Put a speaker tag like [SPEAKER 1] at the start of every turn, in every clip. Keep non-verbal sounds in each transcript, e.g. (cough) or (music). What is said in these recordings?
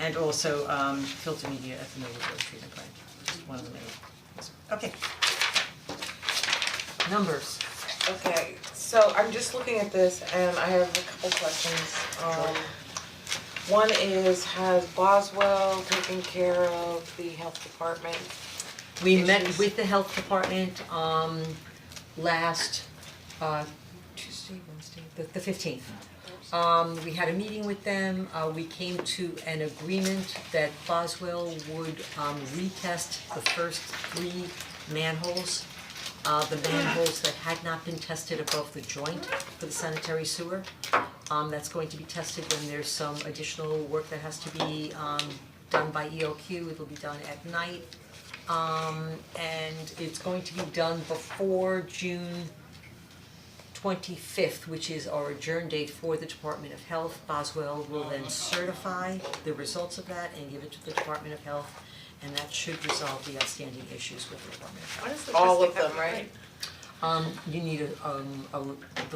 [SPEAKER 1] and also um filter media at the Millwood Road Treatment Plant, just one of the many. Okay. Numbers,
[SPEAKER 2] Okay, so I'm just looking at this and I have a couple questions. Um, one is, has Boswell taken care of the health department?
[SPEAKER 1] we met
[SPEAKER 2] Issues.
[SPEAKER 1] with the health department um last uh Tuesday, Wednesday, the the fifteenth. Um we had a meeting with them, uh we came to an agreement that Boswell would um retest the first three manholes. Uh the manholes that had not been tested above the joint for the sanitary sewer. Um that's going to be tested when there's some additional work that has to be um done by ELQ, it'll be done at night. Um and it's going to be done before June twenty-fifth, which is our adjourn date for the Department of Health. Boswell will then certify the results of that and give it to the Department of Health, and that should resolve the outstanding issues with the Department of Health.
[SPEAKER 2] All of them, right?
[SPEAKER 1] Um, you need a, um, a,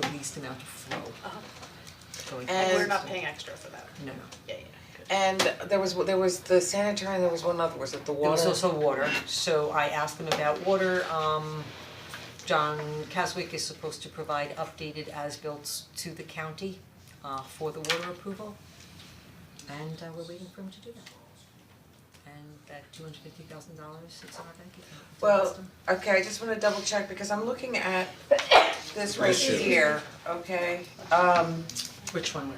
[SPEAKER 1] the least amount of flow. going
[SPEAKER 2] And-
[SPEAKER 1] forward.
[SPEAKER 3] We're not paying extra for that.
[SPEAKER 1] No, no.
[SPEAKER 3] Yeah, yeah.
[SPEAKER 2] And there was, there was the sanitary and there was one other, was it the
[SPEAKER 1] There was
[SPEAKER 2] water?
[SPEAKER 1] also water, so I asked them about water, um, John Caswick is supposed to provide updated as-built to the county, uh, for the water approval. And, uh, we're waiting for him to do that. And that two hundred fifty thousand dollars, it's in our bank account.
[SPEAKER 2] Well, okay, I just wanna double check because I'm looking at this right here, okay? Um,
[SPEAKER 1] Which one?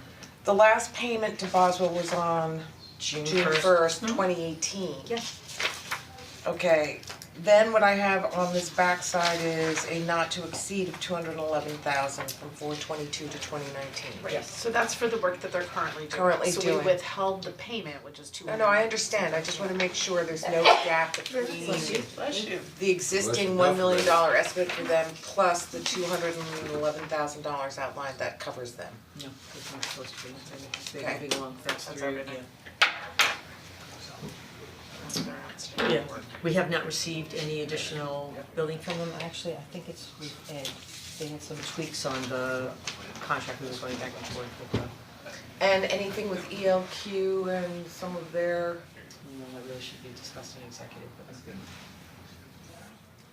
[SPEAKER 2] the last payment to Boswell was on
[SPEAKER 1] June Mm-hmm.
[SPEAKER 2] June first, twenty eighteen.
[SPEAKER 1] Yes.
[SPEAKER 2] Okay, then what I have on this backside is a not to exceed of two hundred and eleven thousand from four twenty-two to twenty nineteen.
[SPEAKER 3] Right, so that's for the work that they're currently doing.
[SPEAKER 2] Currently
[SPEAKER 3] So
[SPEAKER 2] doing.
[SPEAKER 3] we withheld the payment, which is two
[SPEAKER 2] No,
[SPEAKER 3] hundred.
[SPEAKER 2] no, I understand, I just wanna make sure there's
[SPEAKER 3] (laughs)
[SPEAKER 2] no gap between
[SPEAKER 3] Bless you.
[SPEAKER 2] the existing one million dollar estimate for them plus the two hundred and eleven thousand dollars outlined that covers them.
[SPEAKER 1] No, it's not supposed to be, It's- they're
[SPEAKER 2] Okay.
[SPEAKER 1] moving along, that's
[SPEAKER 2] That's
[SPEAKER 1] through,
[SPEAKER 2] everything.
[SPEAKER 1] yeah.
[SPEAKER 2] That's their outstanding work.
[SPEAKER 1] We have not received any additional building from them, actually, I think it's with Ed, they had some tweaks on the contract we were going back and forth with, but
[SPEAKER 2] And anything with ELQ and some of their,
[SPEAKER 1] you know, that really should be discussed in executive, but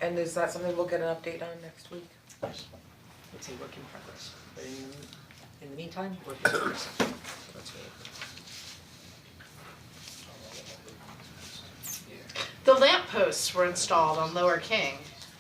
[SPEAKER 2] and is that something we'll get an update on next week?
[SPEAKER 1] it's a work in progress. But in, in the meantime, work in progress, so that's really good.
[SPEAKER 3] The lamp posts were installed on Lower King.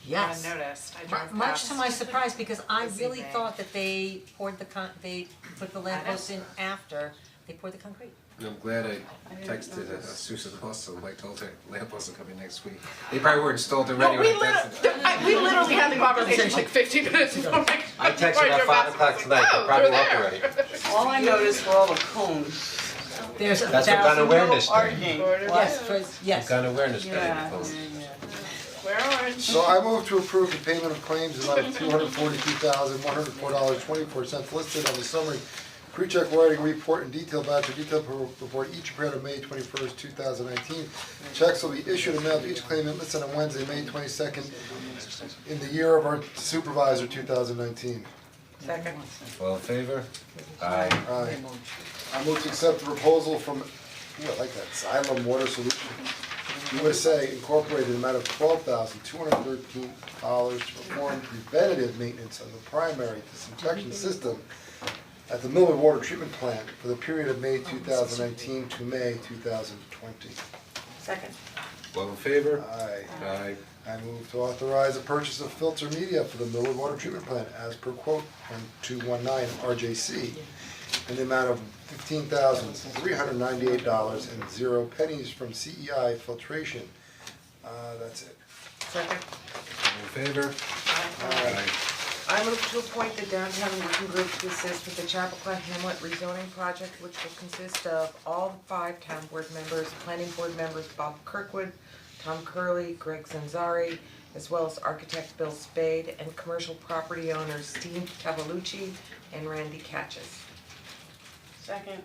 [SPEAKER 1] Yes.
[SPEAKER 3] I noticed, I
[SPEAKER 1] Mu-
[SPEAKER 3] drove
[SPEAKER 1] Much to
[SPEAKER 3] past.
[SPEAKER 1] my surprise, because I
[SPEAKER 2] Busy
[SPEAKER 1] really
[SPEAKER 2] day.
[SPEAKER 1] thought that they poured the con, they put the lamp posts in after, they poured the concrete.
[SPEAKER 4] And I'm glad I texted uh, Susan also, like told her lamp wasn't coming next week. They probably were installed already
[SPEAKER 3] No,
[SPEAKER 4] when
[SPEAKER 3] we
[SPEAKER 4] I texted her.
[SPEAKER 3] literally, I, we literally had the conversation like fifteen minutes ago. (laughs)
[SPEAKER 4] I texted her at five o'clock tonight,
[SPEAKER 3] Oh,
[SPEAKER 4] they probably left already.
[SPEAKER 5] All I noticed were all the cones,
[SPEAKER 1] There's a
[SPEAKER 4] That's what gun
[SPEAKER 1] thousand,
[SPEAKER 4] awareness day,
[SPEAKER 5] parking.
[SPEAKER 1] yes, for- yes,
[SPEAKER 4] gun awareness day,
[SPEAKER 5] Yeah.
[SPEAKER 4] folks.
[SPEAKER 3] We're orange.
[SPEAKER 6] So I move to approve the payment of claims in amount of two hundred forty-two thousand, one hundred four dollars, twenty-four cents listed on the summary pre-check writing report and detailed voucher detailed pro- report each period of May twenty-first, two thousand nineteen. Checks will be issued and mailed to each claimant listed on Wednesday, May twenty-second, in the year of our supervisor, two thousand nineteen.
[SPEAKER 2] Second.
[SPEAKER 4] All in favor? Aye.
[SPEAKER 6] Aye. I move to accept the proposal from, ooh, I like that, Xylem Water Solution, USA Incorporated, in the amount of twelve thousand two hundred thirteen dollars to perform preventative maintenance on the primary disinfection system at the Millwood Water Treatment Plant for the period of May two thousand nineteen to May two thousand twenty.
[SPEAKER 2] Second.
[SPEAKER 4] All in favor?
[SPEAKER 6] Aye.
[SPEAKER 4] Aye.
[SPEAKER 6] I move to authorize the purchase of filter media for the Millwood Water Treatment Plant as per quote one two one nine RJC in the amount of fifteen thousand three hundred ninety-eight dollars and zero pennies from CEI Filtration. Uh, that's it.
[SPEAKER 2] Second.
[SPEAKER 4] All in favor? Aye.
[SPEAKER 2] I move to appoint the downtown working group to assist with the Chappaqua Hamlet rezoning project, which will consist of all five town board members, planning board members, Bob Kirkwood, Tom Curley, Greg Zanzari, as well as architect Bill Spade, and commercial property owners Steve Tavalucci and Randy Catches.
[SPEAKER 5] Second.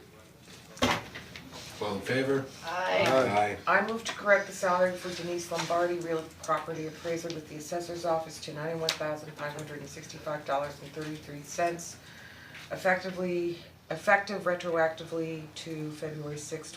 [SPEAKER 4] All in favor?
[SPEAKER 3] Aye.
[SPEAKER 4] Aye.
[SPEAKER 2] I move to correct the salary for Denise Lombardi, real property appraiser with the assessor's office to ninety-one thousand five hundred and sixty-five dollars and thirty-three cents. Effectively, effective retroactively to February sixth,